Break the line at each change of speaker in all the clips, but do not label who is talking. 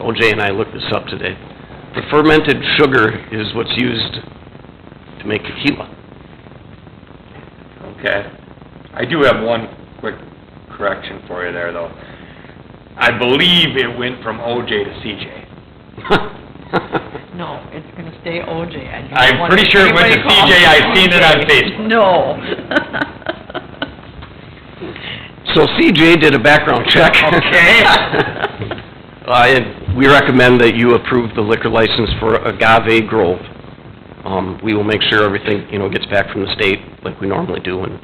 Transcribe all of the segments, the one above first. OJ and I looked this up today. The fermented sugar is what's used to make tequila.
Okay. I do have one quick correction for you there, though. I believe it went from OJ to CJ.
No, it's gonna stay OJ. I don't
I'm
want
pretty sure it went to
anybody calling
CJ. I
me
seen it on
OJ.
Facebook.
No.
So CJ did a background check.
Okay.
Uh, and we recommend that you approve the liquor license for Agave Grove. Um, we will make sure everything, you know, gets back from the state like we normally do, and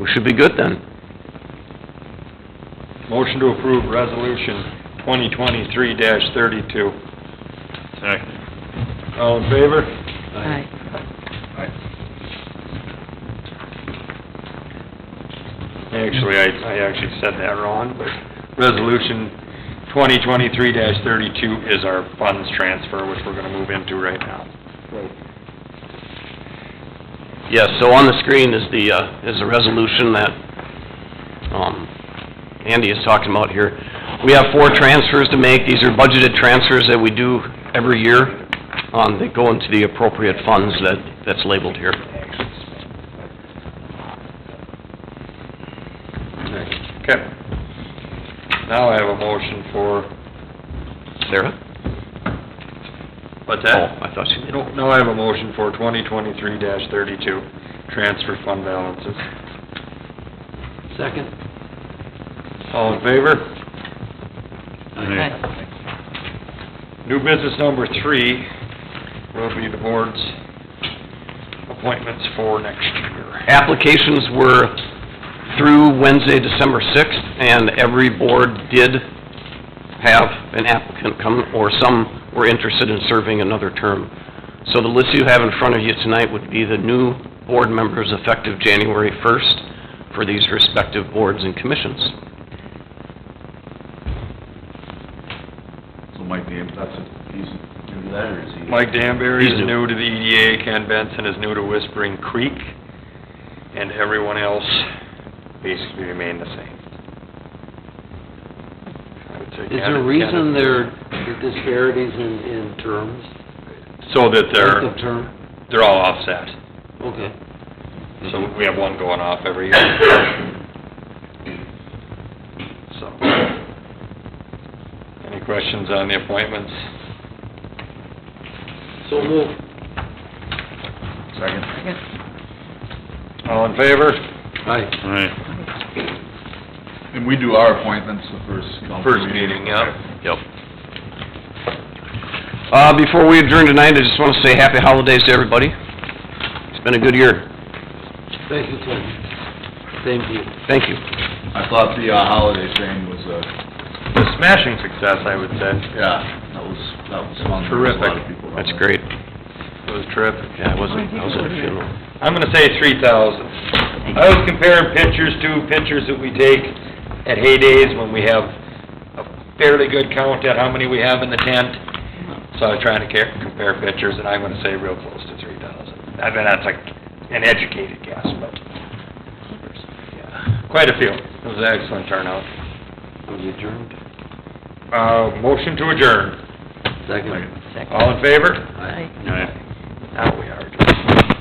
we should be good then.
Motion to approve resolution twenty twenty-three thirty-two.
Second.
All in favor?
Aye.
Actually, I, I actually said that wrong, but resolution twenty twenty-three thirty-two is our funds transfer, which we're gonna move into right now.
Yes, so on the screen is the, uh, is the resolution that, um, Andy is talking about here. We have four transfers to make, these are budgeted transfers that we do every year, um, that go into the appropriate funds that, that's labeled here.
Okay. Now I have a motion for,
Sarah?
what's
Oh,
that?
I thought she did.
No, Now I have a motion for twenty twenty-three thirty-two, transfer fund balances.
Second.
All in favor?
Aye.
New business number three will be the board's appointments for next year.
Applications were through Wednesday, December sixth, and every board did have an applicant come, or some were interested in serving another term. So the list you have in front of you tonight would be the new board members effective January first for these respective boards and commissions.
So Mike, Dan- that's, a- he's new to that, or is he?
Mike Danbury
He's
is
new.
new to the EDA, Ken Benson is new to Whispering Creek, and everyone else basically remained the same. I would say
Is
Ken-
there a reason
Ken-
there are disparities in, in terms?
So that
Length
they're,
of term?
they're all offset.
Okay.
So we have one going off every year. So. Any questions on the appointments?
So move.
Second.
All in favor?
Aye.
Aye. And we do our appointments the first council
First meeting, yep.
Yep. Uh, before we adjourn tonight, I just want to say happy holidays to everybody. It's been a good year.
Thank you, Tim. Same to you.
Thank you.
I thought the uh, holiday thing was a,
A smashing success, I would say.
yeah, that was, that was fun. There was a lot of
Terrific.
people.
That's great.
It was terrific.
Yeah, I wasn't, I was at a funeral.
I'm gonna say three thousand. I was comparing pictures to pictures that we take at heydays when we have a fairly good count at how many we have in the tent. So I was trying to ca- compare pictures, and I'm gonna say real close to three thousand. I mean, that's like an educated guess, but, yeah, quite a few. It was an excellent turnout.
Will you adjourn?
Uh, motion to adjourn.
Second.
All in favor?
Aye.
Aye.
Now we are adjourned.